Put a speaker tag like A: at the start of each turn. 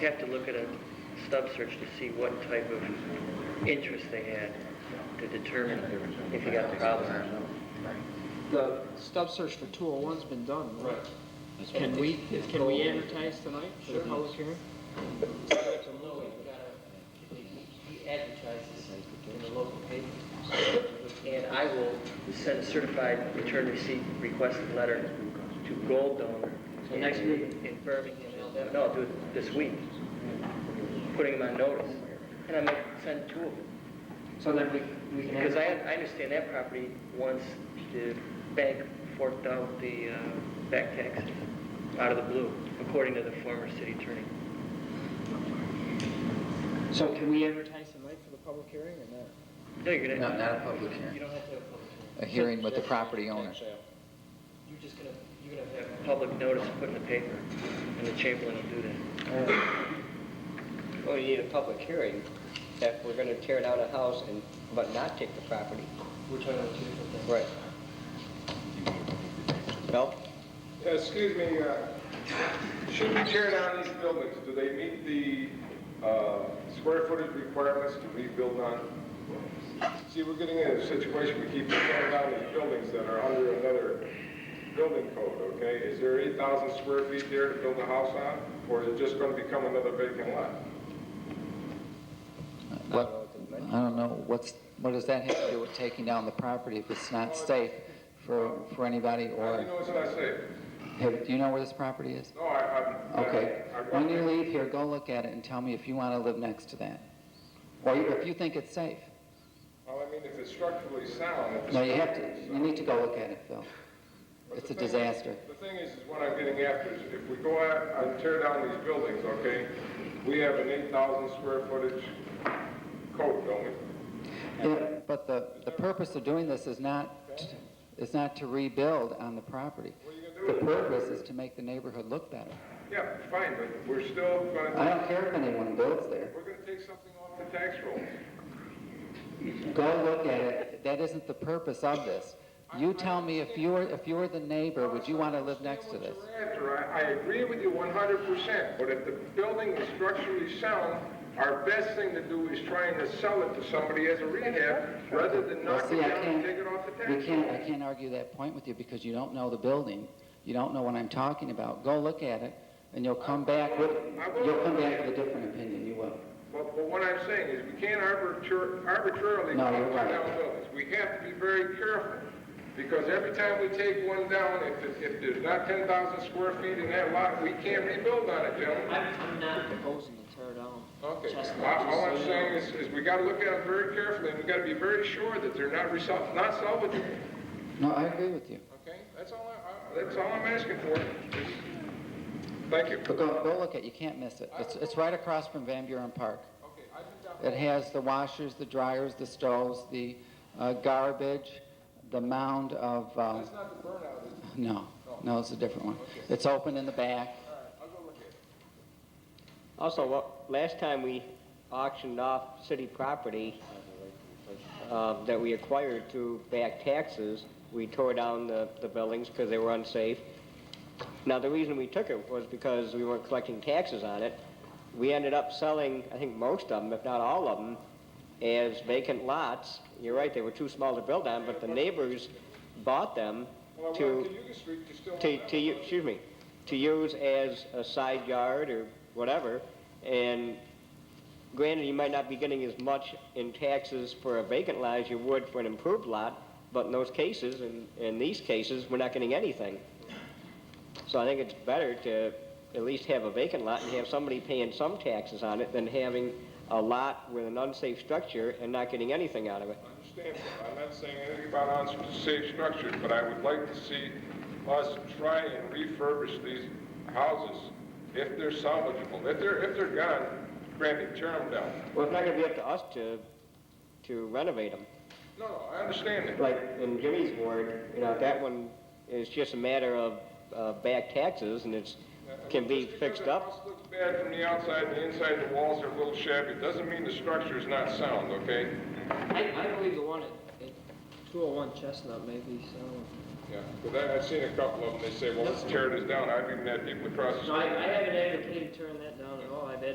A: You have to look at a sub-search to see what type of interest they had to determine if you got a problem or not.
B: The stub search for 201's been done, right? Can we, can we advertise tonight for the public hearing?
A: He advertises in the local paper. And I will send a certified return receipt requested letter to Gold Donor.
B: So next week?
A: In Birmingham, no, I'll do it this week, putting them on notice. And I might send two of them.
B: So then we, we can
A: Because I,
B: advertise.
A: I understand that property, once the bank forked out the uh, back taxes out of the blue, according to the former city attorney.
B: So can we advertise tonight for the public hearing or not?
A: No, you're
C: Not,
A: gonna,
C: not a public
A: you
C: hearing,
A: don't have to have a public hearing.
C: a hearing with the property
D: Oh,
C: owner.
D: uh,
A: You're just gonna, you're gonna have public notice put in the paper, and the Chamberlain will do that.
D: Well, you need a public hearing, that we're gonna tear down a house and, but not take the property.
A: We're talking about two different things.
D: Right. No?
E: Excuse me, uh, should we tear down these buildings? Do they meet the uh, square footage requirements to rebuild on? See, we're getting in a situation, we keep tearing down these buildings that are under another building code, okay? Is there 8,000 square feet there to build a house on, or is it just going to become another vacant lot?
C: What, I don't know, what's, what does that have to do with taking down the property if it's not safe for, for anybody
E: How
C: or,
E: do you know it's not safe?
C: Have- do you know where this property is?
E: No, I, I'm...
C: Okay,
E: I- I-
C: when you leave here, go look at it and tell me if you want to live next to that. Or if you think it's safe.
E: Well, I mean, if it's structurally sound... if it's
C: No, you have to,
E: structurally
C: you
E: sound-
C: need to go look at it, Phil.
E: But
C: It's
E: the
C: a
E: thing is-
C: disaster.
E: The thing is, is what I'm getting after is if we go out and tear down these buildings, okay, we have an eight thousand square footage code, don't we?
C: Yeah, But the, the purpose of doing this is not, t- is not to rebuild on the property.
E: What are you
C: The
E: gonna do with it?
C: purpose is to make the neighborhood look better.
E: Yeah, fine, but we're still
C: I
E: gonna,
C: don't care if anyone builds there.
E: we're gonna take something off the tax roll.
C: Go look at it. That isn't the purpose of this. You tell me if you were, if you were the neighbor, would you want to live next to this?
E: What you're after, I, I agree with you one hundred percent, but if the building is structurally sound, our best thing to do is trying to sell it to somebody as a rehab, rather than
C: Well,
E: knock it
C: see, I
E: down and
C: can't,
E: take it off the tax roll.
C: we can't, I can't argue that point with you because you don't know the building. You don't know what I'm talking about. Go look at it and you'll come back with, you'll come back with a different opinion. You will.
E: But, but what I'm saying is, we can't arbitrar- arbitrarily
C: No, you're
E: close
C: right.
E: down buildings. We have to be very careful, because every time we take one down, if, it- if there's not ten thousand square feet in that lot, we can't rebuild on it, gentlemen.
B: I'm, I'm not proposing to tear down.
E: Okay,
B: Chestnut,
E: all,
B: just
E: all
B: so
E: I'm
B: you know.
E: saying is, is we gotta look at it very carefully, and we gotta be very sure that they're not result, not salvageable.
C: No, I agree with you.
E: Okay, that's all I, I, that's all I'm asking for. Just- Thank you.
C: But go, go look at it. You can't miss it. It's, it's right across from Van Buren Park.
E: Okay, I think that-
C: It has the washers, the dryers, the stoves, the uh, garbage, the mound of, um,
E: That's not the burnout, is it?
C: no, no, it's a different one. It's open in the back.
E: All right, I'll go look at it.
D: Also, what, last time we auctioned off city property, uh, that we acquired through back taxes, we tore down the, the buildings because they were unsafe. Now, the reason we took it was because we weren't collecting taxes on it. We ended up selling, I think, most of them, if not all of them, as vacant lots. You're right, they were too small to build on, but the neighbors bought them
E: Well, I
D: to
E: went to Yuga Street, you still want
D: to,
E: that
D: to, u- excuse me, to use as a side yard or whatever, and granted, you might not be getting as much in taxes for a vacant lot as you would for an improved lot, but in those cases, in, in these cases, we're not getting anything. So I think it's better to at least have a vacant lot and have somebody paying some taxes on it than having a lot with an unsafe structure and not getting anything out of it.
E: understand that. I'm not saying anything about unsafe structures, but I would like to see us try and refurbish these houses if they're salvageable. If they're, if they're gone, granted, tear them down.
D: Well, it's not gonna be up to us to, to renovate them.
E: No, no, I understand that.
D: like in Jimmy's ward, you know, that one is just a matter of uh, back taxes and it's, can be
E: Just
D: fixed up.
E: Because the house looks bad from the outside and the inside, the walls are a little shabby, doesn't mean the structure is not sound, okay?
B: I, I believe the one at, at 201 Chestnut maybe, so.
E: Yeah, because I've seen a couple of them, they say, well, let's tear this down. I've even had people across the
B: No, I, I
E: street.
B: haven't advocated tearing that down at